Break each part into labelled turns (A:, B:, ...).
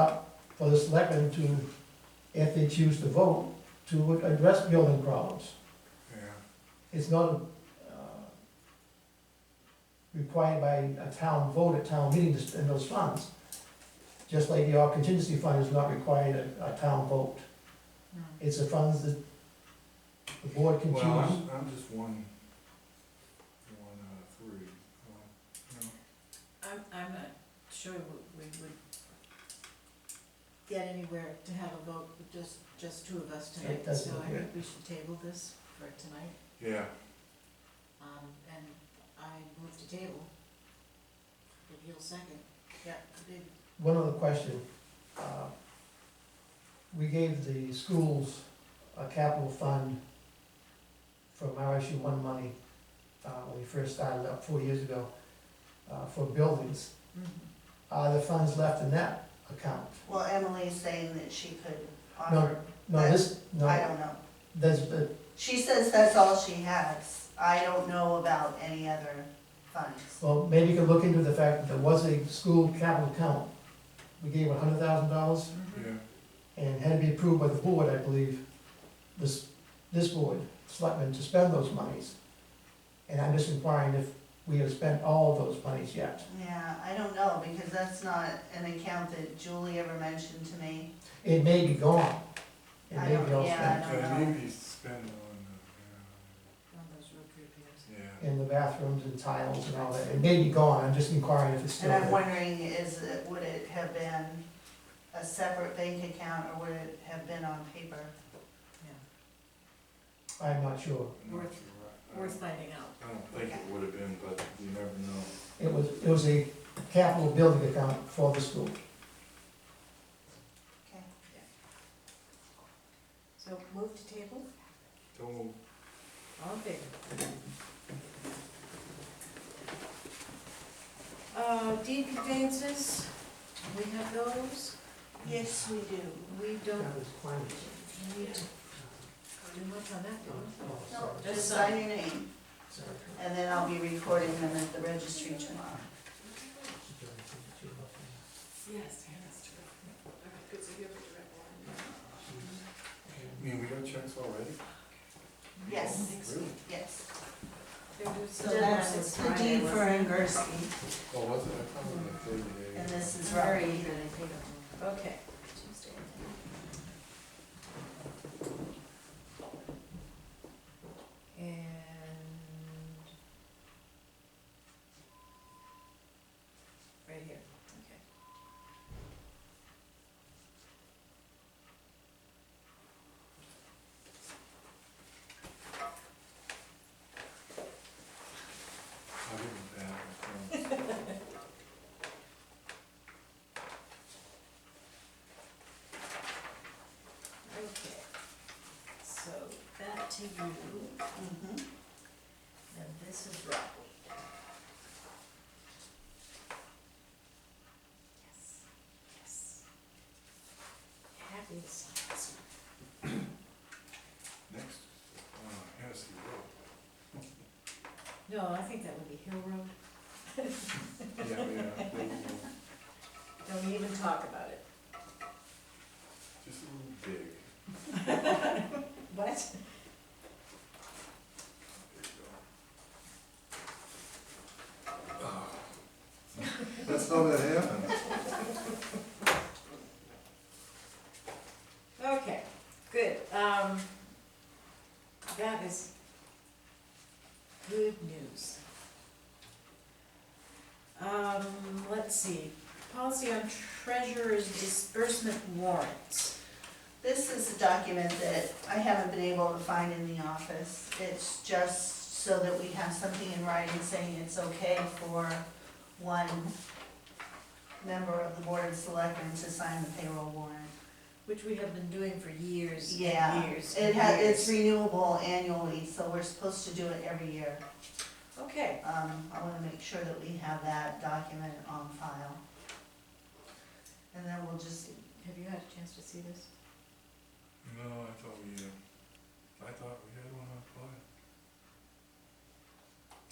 A: up for the selectmen to, if they choose to vote, to address building problems.
B: Yeah,
A: It's not, uh, required by a town vote at town meeting to spend those funds. Just like your contingency fund is not required at a town vote. It's the funds that the board can
B: well,
A: choose.
B: I'm, I'm just one, one out of three. Well, no.
C: I'm, I'm not sure we we would get anywhere to have a vote with just, just two of us tonight,
A: That's
C: so I
A: okay.
C: think we should table this for tonight.
B: Yeah,
C: Um, and I move to table. If you'll second, yeah, did,
A: One other question. Uh, We gave the schools a capital fund from RSU one money, uh, when we first started up four years ago, uh, for buildings. Are the funds left in that account?
D: Well, Emily's saying that she could
A: No,
D: offer,
A: No, this,
D: I
A: no, uh,
D: don't know.
A: that's, but,
D: She says that's all she has. I don't know about any other funds.
A: well, maybe you could look into the fact that there was a school capital account. We gave a hundred thousand dollars
B: yeah,
A: and had to be approved by the board, I believe, this, this board, selectmen, to spend those monies. And I'm just inquiring if we have spent all of those monies yet.
D: Yeah, I don't know, because that's not an account that Julie ever mentioned to me.
A: It may be gone. It
D: I
A: may be
D: don't-
A: all
D: yeah,
A: spent.
D: don't
B: so
D: know.
B: maybe spend on,
C: one of those road trip years.
B: the, yeah, yeah.
A: In the bathrooms and tiles and all that. It may be gone. I'm just inquiring if it's still
D: And I'm
A: there.
D: wondering, is it, would it have been a separate bank account or would it have been on paper?
A: I'm not sure.
B: I'm not
C: Worth-
B: sure. I- I
C: Worth
B: don't-
C: finding out.
B: I don't think it would have been, but you never know.
A: It was, it was a capital building account for the school.
D: Okay.
C: So move to table,
B: Don't, move.
C: all in favor? Uh, deed conveyances, we have those,
D: Yes, we do.
C: we don't
A: That was climate
C: need to do much on that, do we?
A: change. Oh,
D: No,
A: sorry.
D: just uh, sign your name,
A: Sorry.
D: and then I'll be recording them at the registry tomorrow.
C: Yes, that's true.
B: I mean, we got checks already? Oh,
D: Yes.
B: Really?
D: Yes.
C: So that's
D: the deed for Angerski.
B: Oh, was it? I thought it was like thirty days.
D: And this is
C: very
D: Robbie.
C: good, I think. Okay. And. Right here, okay.
B: I didn't bat an eye.
C: Okay, so back to you,
D: Mhm.
C: and this is rockweed. Yes, yes. Happy to sign this one.
B: Next, uh, Hennessy Road.
C: No, I think that would be Hill Road,
B: Yeah, yeah. we'll- we'll-
C: don't even talk about it.
B: Just a little big.
C: What?
B: That's how that happened.
C: Okay, good, um, that is good news. Um, let's see, policy on treasurer's disbursement warrants.
D: This is a document that I haven't been able to find in the office. It's just so that we have something in writing saying it's okay for one member of the Board of Selectmen to sign the payroll warrant.
C: Which we have been doing for years and
D: Yeah,
C: years
D: It
C: and
D: has, it's
C: years.
D: renewable annually, so we're supposed to do it every year.
C: Okay,
D: Um, I wanna make sure that we have that document on file. And then we'll just,
C: have you had a chance to see this?
B: No, I thought we, uh, I thought we had one on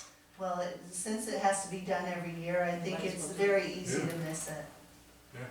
B: file.
D: well, it- since it has to be done every year, I think
C: Might as
D: it's
C: well.
D: very easy
B: Yeah.
D: to miss it.
B: Yeah,